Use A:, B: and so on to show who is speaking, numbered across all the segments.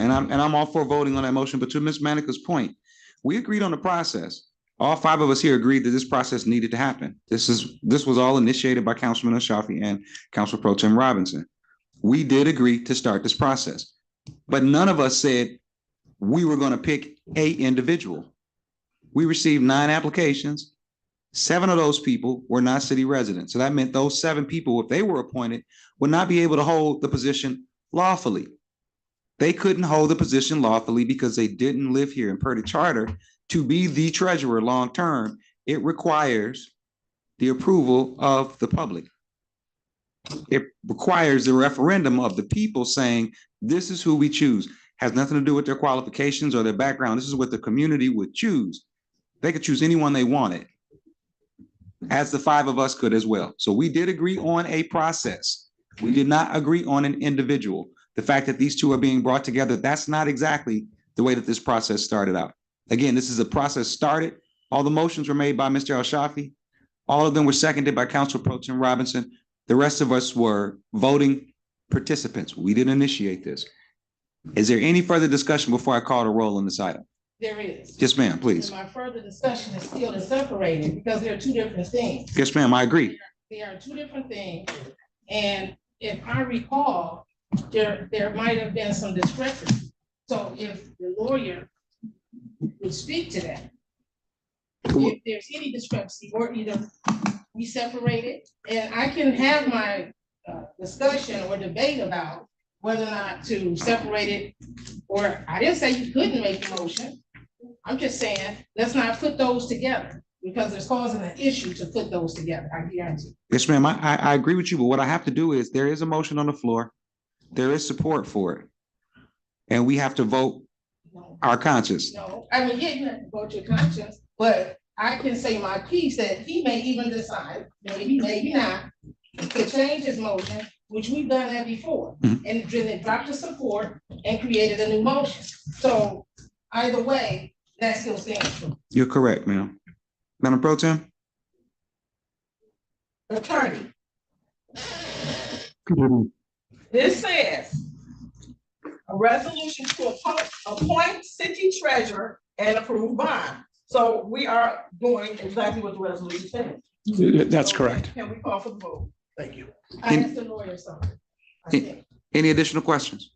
A: and I'm, and I'm all for voting on that motion, but to Ms. Manica's point, we agreed on the process. All five of us here agreed that this process needed to happen. This is, this was all initiated by Councilman Ashafi and Council Pro Tim Robinson. We did agree to start this process, but none of us said we were gonna pick a individual. We received nine applications. Seven of those people were not city residents. So that meant those seven people, if they were appointed, would not be able to hold the position lawfully. They couldn't hold the position lawfully because they didn't live here. And per the charter, to be the treasurer long-term, it requires the approval of the public. It requires the referendum of the people saying, this is who we choose. Has nothing to do with their qualifications or their background. This is what the community would choose. They could choose anyone they wanted, as the five of us could as well. So we did agree on a process. We did not agree on an individual the fact that these two are being brought together, that's not exactly the way that this process started out. Again, this is a process started, all the motions were made by Mr. Al Shafi. All of them were seconded by Council Pro Tim Robinson. The rest of us were voting participants. We didn't initiate this. Is there any further discussion before I call the roll on this item?
B: There is.
A: Yes, ma'am,
B: And
A: please.
B: my further discussion is still is separated because they're two different things.
A: Yes, ma'am, I agree.
B: They are two different things. And if I recall, there, there might have been some discrepancy. So if the lawyer would speak to that, if there's any discrepancy, or either we separate it, and I can have my uh, discussion or debate about whether or not to separate it, or I didn't say you couldn't make a motion. I'm just saying, let's not put those together, because it's causing an issue to put those together, I guarantee.
A: Yes, ma'am, I, I, I agree with you, but what I have to do is, there is a motion on the floor. There is support for it. And we have to vote
B: No,
A: our conscience.
B: No, I mean, yeah, you have to go to your conscience, but I can say my piece that he may even decide, maybe, maybe not, to change his motion, which we've done that before,
A: Mhm.
B: and then it dropped the support and created a new motion. So either way, that still stands true.
A: You're correct, ma'am. Madam Pro Tem?
B: Attorney, this says,
C: a resolution to appoint, appoint city treasurer and approve bond. So we are doing exactly what the resolution says.
D: That's
C: So
D: correct.
C: Can we call for the vote? Thank you.
B: I asked the lawyer something. I
A: In-
B: think.
A: Any additional questions?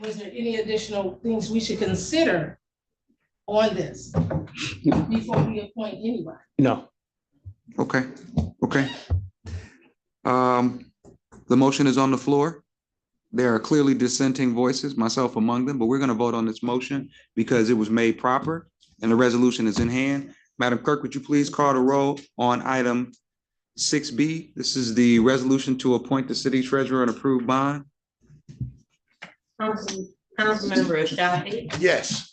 B: Was there any additional things we should consider on this before we appoint anybody?
D: No,
A: Okay, okay. Um, the motion is on the floor. There are clearly dissenting voices, myself among them, but we're gonna vote on this motion because it was made proper and the resolution is in hand. Madam Clerk, would you please call the roll on item six B? This is the resolution to appoint the city treasurer and approve bond.
E: Council, Councilmember Ashafi,
F: Yes.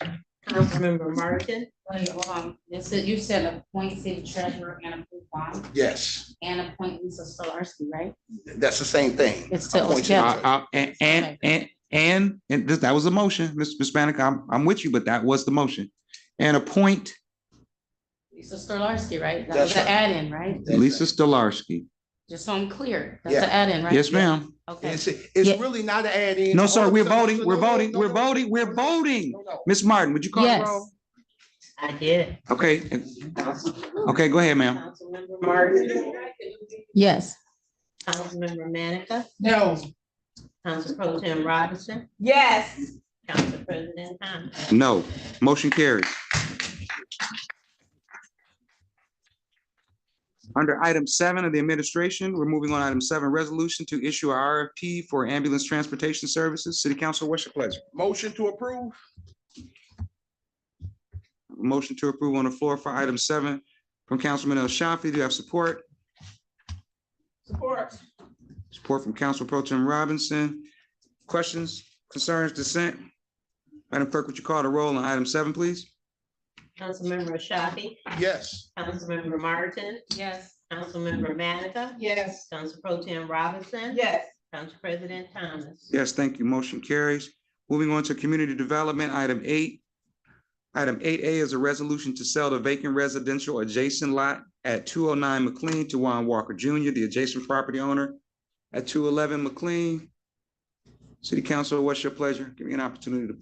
E: Councilmember Martin,
G: Um, this is, you said appoint city treasurer and approve bond
F: Yes,
G: and appoint Lisa Solarski, right?
F: that's the same thing.
G: It's still,
F: Appoint you.
G: yeah,
A: Uh, uh, and, and, and, and, and this- that was a motion, Ms. Ms. Manica, I'm, I'm with you, but that was the motion. And appoint
G: Lisa Solarski, right? That
F: That's
G: was an add-in, right?
A: Lisa Stolarski.
G: Just so I'm clear, that's
F: Yeah.
G: an add-in, right?
A: Yes, ma'am.
G: Okay.
F: It's, it's
G: Yeah.
F: really not an add-in.
A: No, sir, we're
F: Also,
A: voting,
F: no,
A: we're
F: no,
A: voting,
F: no,
A: we're
F: no,
A: voting, we're
F: no,
A: voting.
F: no, no.
A: Ms. Martin, would you call the
G: Yes.
A: roll?
E: I did.
A: Okay, and- okay, go ahead, ma'am.
E: Councilmember Martin,
G: Yes.
E: Councilmember Manica,
B: No.
E: Council Pro Tim Robinson,
C: Yes.
E: Council President Thomas.
A: No, motion carries. Under item seven of the administration, we're moving on item seven, resolution to issue a RFP for ambulance transportation services. City Council, what's your pleasure?
F: Motion to approve?
A: Motion to approve on the floor for item seven from Councilman El Shafi. Do you have support?
C: Support.
A: Support from Council Pro Tim Robinson. Questions, concerns, dissent? Madam Clerk, would you call the roll on item seven, please?
E: Councilmember Ashafi,
F: Yes.
E: Councilmember Martin,
G: Yes.
E: Councilmember Manica,
B: Yes.
E: Council Pro Tim Robinson,
C: Yes.
E: Council President Thomas.
A: Yes, thank you. Motion carries. Moving on to community development, item eight. Item eight A is a resolution to sell the vacant residential adjacent lot at two oh nine McLean to Juan Walker Jr., the adjacent property owner at two eleven McLean. City Council, what's your pleasure? Give me an opportunity to